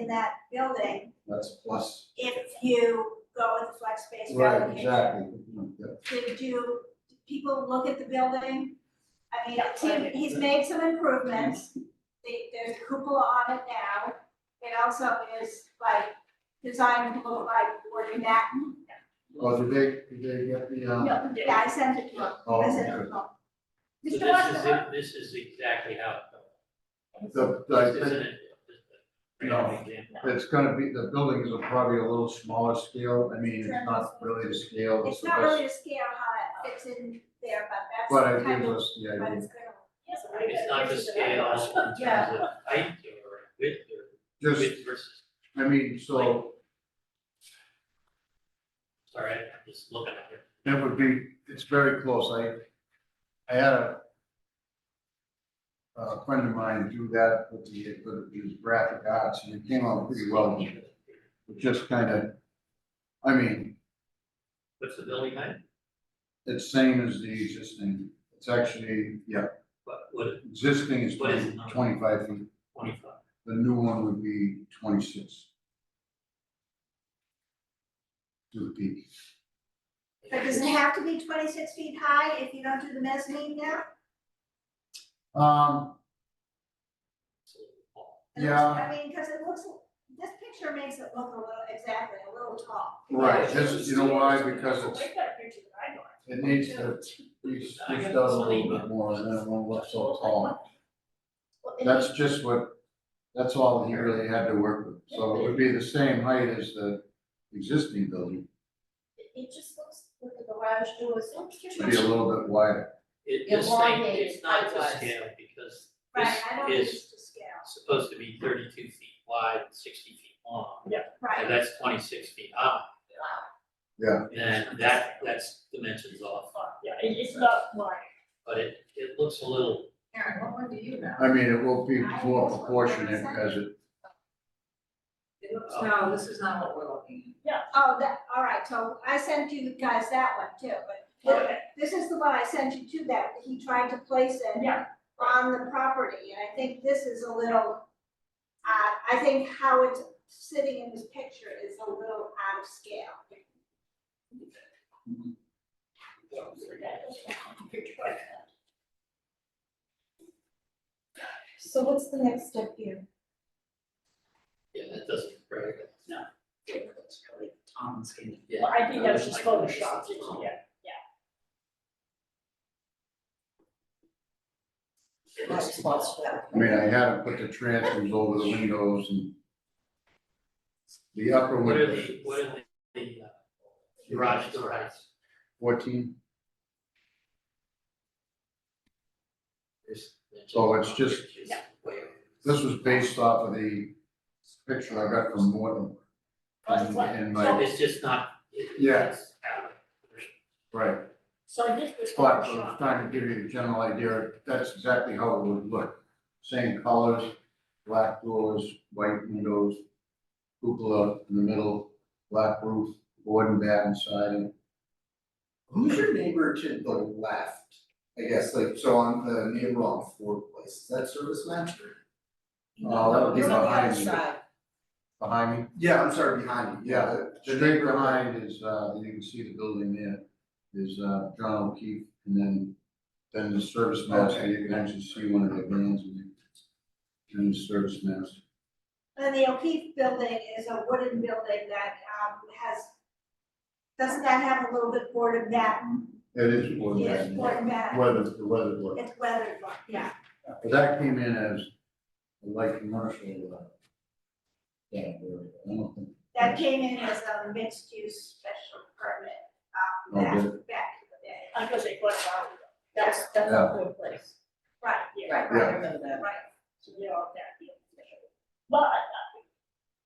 in that building That's plus, if you go with the flex space right, relocation. exactly. Yeah. To do, people look at the building, I mean, Yeah, he- he's made some improvements. The- There's a cupola on it now, it also is like designed to look like Woody Manhattan. Oh, did they, did they get the, uh? No, they- Yeah, I sent it to him, Oh, I sent it to okay. him. Mr. So this is, Washington, it- this is exactly how. The, This I isn't think it. Random example. it's gonna be, the buildings are probably a little smaller scale, I mean, it's not really the scale. It's the not best, really to scale how it fits in there, but But that's it kind gives of, us the but idea, it's gonna. It's not the scale in terms Yeah. of height or width or just, width versus, I mean, so sorry, I'm just looking at it. it would be, it's very close, I, I had a a friend of mine do that with the, with his graphic arts, and it came out pretty well, It just kind of, I mean, What's the building height? It's same as the existing, it's actually, yeah, What, what, existing is What is 20 it? 25 feet, twenty-five? the new one would be twenty-six. To the peak, But does it have to be twenty-six feet high if you don't do the mezzanine now? um, yeah, I mean, because it looks, this picture makes it look a little, exactly, a little tall. right, this, you know why, because it's, Way better picture than I know. it needs to be squished out a little bit more, and then it won't look so tall. Well, and That's just what, that's all he really had to work with, so it would be the same height as the existing building, It it just looks like the garage door is so cute. it'd be a little bit wider. It, this thing, it's Elongated not to height-wise. scale because Right, I don't think this it's is to scale, supposed to be thirty-two feet wide, and sixty feet long. And right, that's twenty-six feet high, Yeah. and that, that's dimensions off, Yeah, it, it's not wide. but it, it looks a little, Aaron, what one do you know? I mean, it will be more proportionate as it, It looks, no, this is not what we're looking oh, that, all right, so I sent you guys that one too, but look, this is the one I sent you to that, he tried to place it Yeah. on the property, and I think this is a little, uh, I think how it's sitting in this picture is a little out of scale. So what's the next step here? yeah, that doesn't, very good. at. It looks really Tom and skinny. Yeah. Well, I think that was just Like, it's photoshopped, just long. yeah. It That's looks what's- small. I mean, I had to put the transoms over the windows and the upper What are window, the, what are the, the uh, garage door heights? fourteen, There's dimensions So it's off, just- which is Yeah. way over. this was based off of the picture I got from Morton. That's And- what- and So my, it's just not. it- Yeah. it's out of proportion. right, So I did was but I was photoshopped. trying to give you a general idea, that's exactly how it would look. Same colors, black doors, white windows, cupola in the middle, black roof, board and batten siding. Who's your neighbor to the left? I guess like so on the neighbor on Ford Place, is that Service Master? Oh, that would be You're on the behind other you. side. Behind me? Yeah, I'm sorry, behind you, yeah, The neighbor behind is, uh, you can see the building there, is, uh, John O'Keefe, and then, then the service master, you can actually see one of the vans in there. And the service master, And the O'Keefe building is a wooden building that um has, doesn't that have a little bit board of batten? it is one of Yes, them, board of batten, weather, the weather board, it's weathered, one, yeah. but that came in as a light commercial, uh, yeah, I don't think, That came in as a mixed use special permit, um, back, Okay. back in the day. I was like, what's wrong with it? That's, that's Yeah. a good place. Right, Yeah. Right, right, I remember that. right. So they're all that deal. But uh,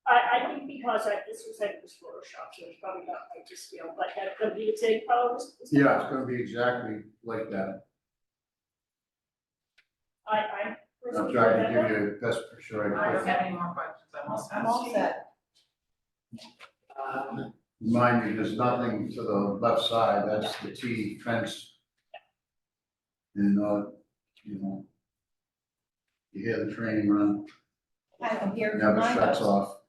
I, I think because I, this was like, this Photoshop, so it's probably not like to scale, but that could be the same color. as- as- yeah, it's gonna be exactly like that, I, I. I'm trying to give you the best picture I I don't could. have any more questions, I'm all set. I'm all set. Um, Mind you, there's nothing to the left side, that's the T fence. And, uh, you know. You hear the train run, I can hear never shuts off.